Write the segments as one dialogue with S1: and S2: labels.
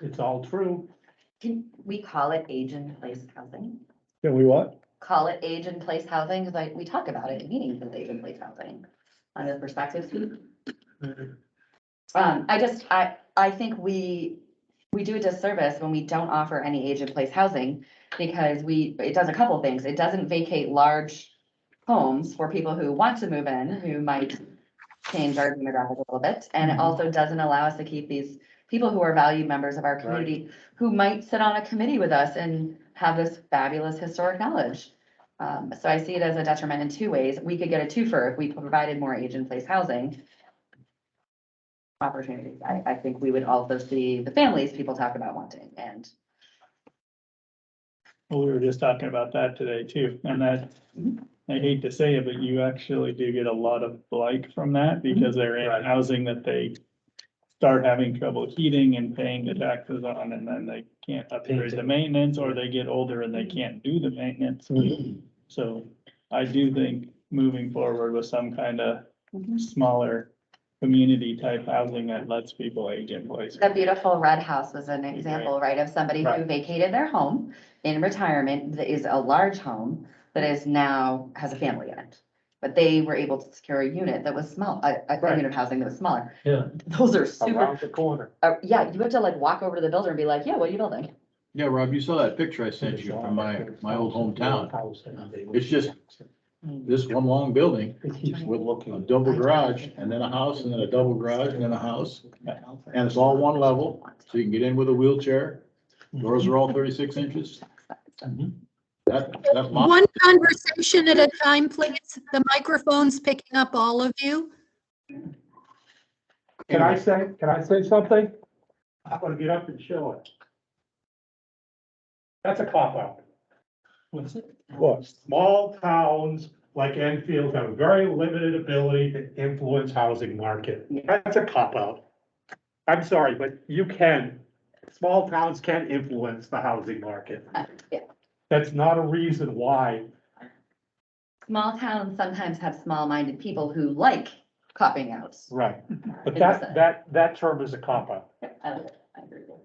S1: It's all true.
S2: Can we call it age in place housing?
S3: Can we what?
S2: Call it age in place housing, because like, we talk about it in meetings as age in place housing on the perspective fee. Um, I just, I, I think we, we do a disservice when we don't offer any age in place housing. Because we, it does a couple things. It doesn't vacate large homes for people who want to move in, who might change our demographic a little bit. And it
S3: Mhm.
S2: also doesn't allow us to keep these people who are valued members of our community, who might sit on a committee with us and have this fabulous historic knowledge. Um, so I see it as a detriment in two ways. We could get a twofer if we provided more age in place housing opportunities. I, I think we would also see the families people talk about wanting and.
S1: Well, we were just talking about that today too, and that, I hate to say it, but you actually do get a lot of blight from that
S4: Mm-hmm.
S1: because they're in housing that they start having trouble heating and paying the taxes on, and then they can't upgrade the maintenance, or they get older and they
S4: Mm-hmm.
S1: can't do the maintenance. So I do think moving forward with some kind of smaller community type housing that lets people age in place.
S2: The beautiful red house was an example, right, of somebody who
S1: Right.
S2: vacated their home in retirement, that is a large home that is now, has a family in it. But they were able to secure a unit that was small, a, a
S1: Right.
S2: unit of housing that was smaller.
S5: Yeah.
S2: Those are super,
S5: Around the corner.
S2: uh, yeah, you have to like walk over to the builder and be like, yeah, what are you building?
S6: Yeah, Rob, you saw that picture I sent you from my, my old hometown. It's just- This one long building with a double garage and then a house and then a double garage and then a house. And it's all one level, so you can get in with a wheelchair. Doors are all thirty-six inches. That, that's my,
S7: One conversation at a time, please. The microphone's picking up all of you.
S4: Can I say, can I say something? I'm gonna get up and show it. That's a cop out.
S3: What?
S4: Small towns like Enfield have very limited ability to influence housing market. That's a cop out. I'm sorry, but you can, small towns can influence the housing market.
S2: Uh, yeah.
S4: That's not a reason why.
S2: Small towns sometimes have small-minded people who like copping out.
S4: Right. But
S2: Exactly.
S4: that, that, that term is a cop out.
S2: I like it. I agree with you.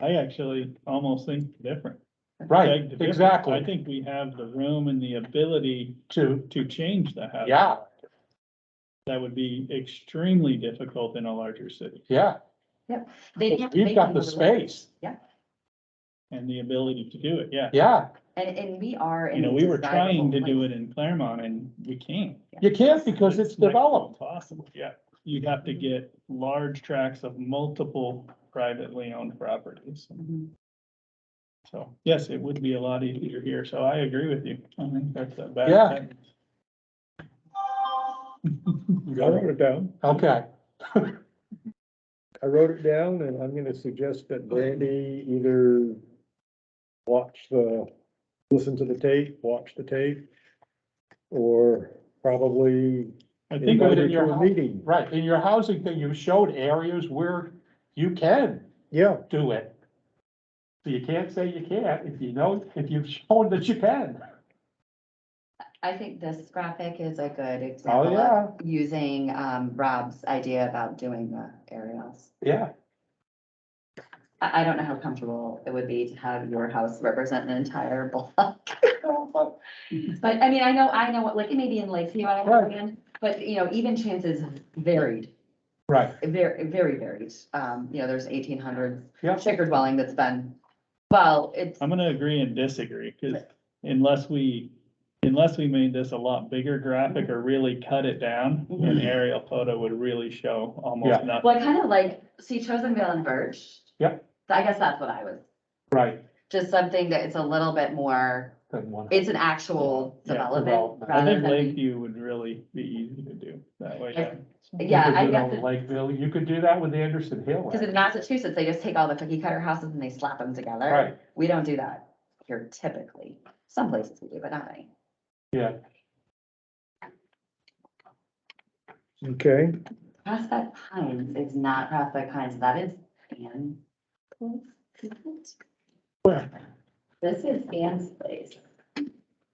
S1: I actually almost think different.
S4: Right,
S1: beg to differ. I
S4: exactly.
S1: think we have the room and the ability
S4: To,
S1: to change the house.
S4: yeah,
S1: That would be extremely difficult in a larger city
S4: yeah.
S2: They didn't have to
S4: We've
S2: make
S4: got
S2: them
S4: the
S2: move away.
S4: space.
S1: and the ability to do it, yeah.
S4: Yeah.
S2: And, and we are.
S1: You know, we were trying to do it in Claremont and we can't.
S4: You can't because it's
S1: next to
S4: developed.
S1: Impossible, yeah. You'd have to get large tracts of multiple privately owned properties.
S2: Mm-hmm.
S1: So, yes, it would be a lot easier here, so I agree with you. I think that's a bad.
S4: Yeah.
S1: sentence.
S3: I wrote it down.
S4: Okay.
S3: I wrote it down and I'm gonna suggest that Brandy either watch the, listen to the tape, watch the tape, or probably
S1: I think,
S3: invite
S4: it
S3: her
S4: in your
S3: to a
S4: house.
S3: meeting.
S4: Right, in your housing thing, you showed areas where you can
S3: Yeah,
S4: do it. So you can't say you can't if you know, if you've shown that you can.
S2: I think this graphic is a
S1: Oh,
S2: good example
S4: yeah.
S2: of using, um, Rob's idea about doing the aerials.
S4: Yeah.
S2: I, I don't know how comfortable it would be to have your house represent an entire block. But I mean, I know, I know, what like, it may be in Lakeview, I
S4: Right.
S2: understand, but you know, even chances varied,
S4: Right,
S2: very, very varied. Um, you know, there's eighteen hundred
S4: yeah,
S2: shaker dwelling that's been, well, it's,
S1: I'm gonna agree and disagree, cause unless we, unless we made this a lot bigger graphic or really cut it down, an aerial photo would really show almost
S4: Mm-hmm. Yeah.
S1: nothing.
S2: well, I kind of like, see Chosenville and Birch.
S4: Yep.
S2: I guess that's what I was
S4: right.
S2: just something that it's a little bit more,
S4: Good one.
S2: it's an actual
S1: Yeah,
S2: development.
S4: development.
S1: I
S2: rather
S1: think
S2: than
S1: Lakeview would really be easy to do that way. yeah.
S4: You
S2: yeah,
S4: could
S2: I
S4: do that
S2: guess
S4: with
S2: it-
S4: Lakeville, you could do that with Anderson Hill.
S2: Because in Massachusetts, they just take all the cookie cutter houses and they slap them together.
S4: Right,
S2: We don't do that here typically. Some places we do, but not many.
S4: yeah.
S3: okay.
S2: Prospect Pines is not Prospect Pines, that is Ann. place, isn't it?
S4: Where?
S2: This is Ann's place.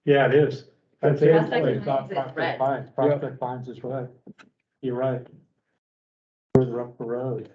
S4: Yeah, it is.
S3: That's
S4: That's
S3: Ann's
S4: Ann's place,
S2: place.
S4: not
S2: It's red.
S4: Prospect Pines. Prospect Pines is right. You're right. Further up the road.